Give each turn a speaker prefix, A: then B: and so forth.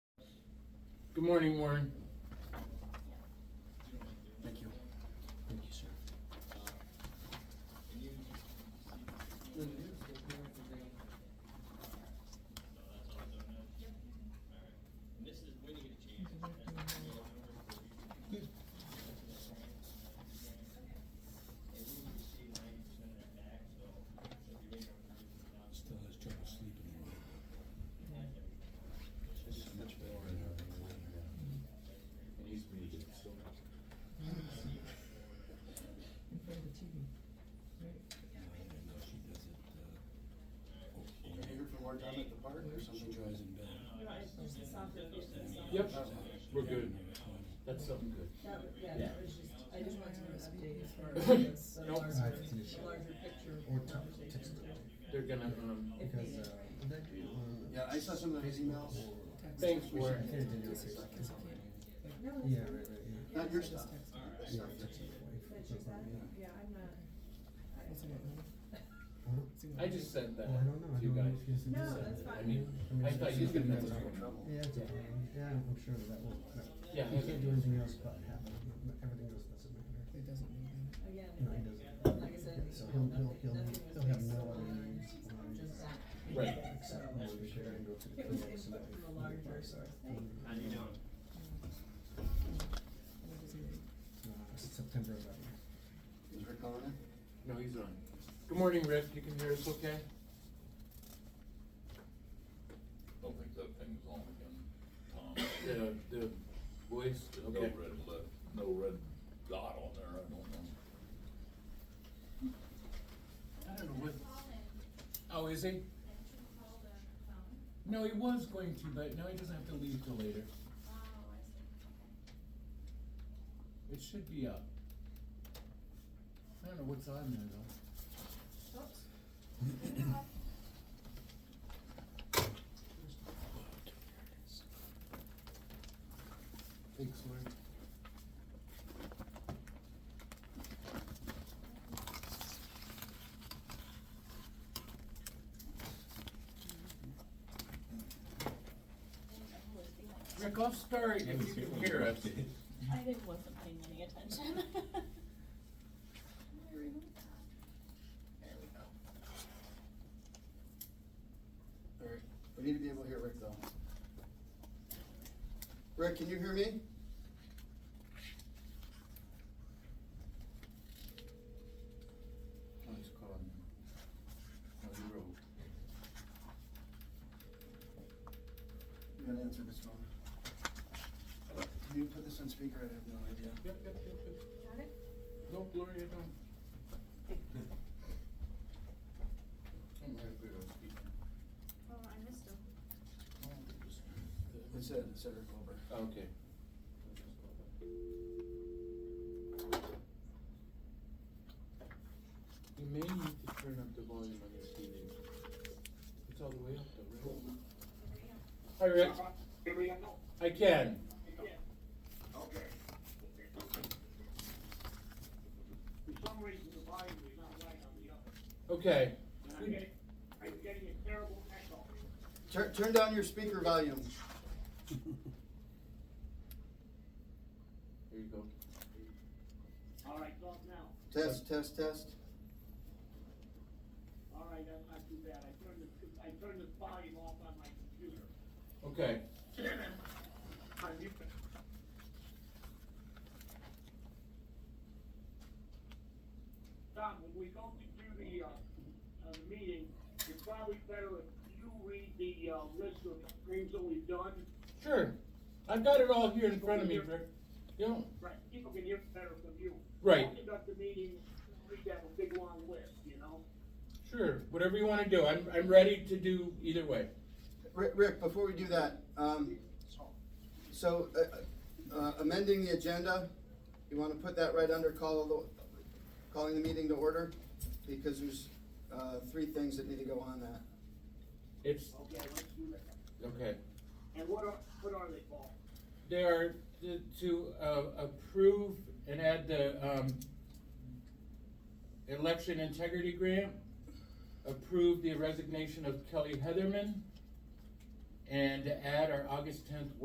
A: Good morning, Warren.
B: Thank you. Thank you, sir. Still has trouble sleeping.
C: in front of the TV.
B: No, she does it, uh,
D: You're here for more time at the park or
B: she
D: something?
B: tries in bed.
A: Yep, we're good. That's something good.
C: That, was- yeah, that was just, I just wanted to update as far as this, uh,
A: Nope.
C: larger, larger picture
E: Or
C: of
E: t-
C: conversation.
E: text it.
A: They're gonna, um,
C: If
E: Because,
C: needed.
E: uh, that, uh,
D: Yeah, I saw some of his emails.
A: thanks,
E: we should
A: Warren.
E: get it in there, it's like, it's-
C: No,
E: Yeah,
C: it's fine.
E: right, right, yeah.
D: Not your stuff.
E: Yeah, text it away from
C: That's just that,
E: somebody, yeah.
C: yeah, I'm not. I-
E: Huh?
A: I just sent that
E: Well, Oh, I don't know, I
A: to you
E: don't know
A: guys.
E: if he's.
C: No,
E: interested.
C: that's fine.
A: I mean, I thought you was gonna mess with me.
E: Yeah, it's okay. yeah, I'm I'm sure that will, that-
A: Yeah,
E: you
A: okay.
E: can't do anything else but have it, everything else doesn't matter.
F: It doesn't mean that.
C: Again,
E: No,
C: like,
E: he doesn't.
C: like I said,
E: So
C: you
E: he'll,
C: know,
E: he'll,
C: nothing-
E: he'll,
C: nothing was
E: he'll have
C: based
E: no other
C: on
E: needs on
C: Just that.
A: Right.
E: except
C: So,
E: what we share and go through
C: It
E: the
C: was
E: code so
C: input
E: that we
C: from a
E: can
C: larger
E: apply it.
C: source. Thank you.
E: Mm, yeah.
F: What does it mean?
E: Uh, September eleventh.
D: Is Rick on it?
A: No, he's on. Good morning, Rick. You can hear us okay?
G: Don't think that thing's on again, Tom.
A: The, the voice,
G: No
A: okay.
G: red left, no red dot on there, I don't know.
A: I don't know what. Oh, is he? No, he was going to, but now he doesn't have to leave till later.
C: Oh,
A: It should be up. I don't know what's on there though.
C: Oops.
A: Thanks, Warren. Rick, I'll start if you can hear us.
H: I didn't, wasn't paying any attention.
D: Alright, we need to be able to hear Rick though. Rick, can you hear me?
A: Oh, he's calling. Oh, he wrote.
D: You gotta answer this phone. Can you put this on speaker? I have no idea.
A: Yep, yep, yep, yep.
C: Got it?
A: No, Gloria, don't. I'm not good at speaking.
C: Oh, I missed him.
D: It said, it said Rick Wilbur.
A: Okay. You may need to turn up the volume on your TV. It's all the way up though, right? Hi, Rick. I can.
I: Okay. For some reason, the volume is not right on the other.
A: Okay.
I: And I'm getting, I'm getting a terrible echo.
D: Turn, turn down your speaker volume.
A: There you go.
I: All right, go up now.
D: Test, test, test.
I: All right, that's not too bad. I turned the, I turned the volume off on my computer.
A: Okay.
I: On mute. Tom, when we go to do the, uh, uh, the meeting, it's probably better if you read the, uh, list of things that we've done.
A: Sure. I've got it all here in front of me, Rick. You know,
I: Right, people can hear better from you.
A: Right.
I: Talking about the meeting, we have a big long list, you know?
A: sure, whatever you wanna do. I'm, I'm ready to do either way.
D: Rick, Rick, before we do that, um, so, uh, uh, amending the agenda, you wanna put that right under call, the- calling the meeting to order? Because there's, uh, three things that need to go on that.
A: It's,
I: Okay, let's do that.
A: okay.
I: And what are, what are they, Paul?
A: They are to- to uh, approve and add the um, election integrity grant, approve the resignation of Kelly Heatherman, and add our August tenth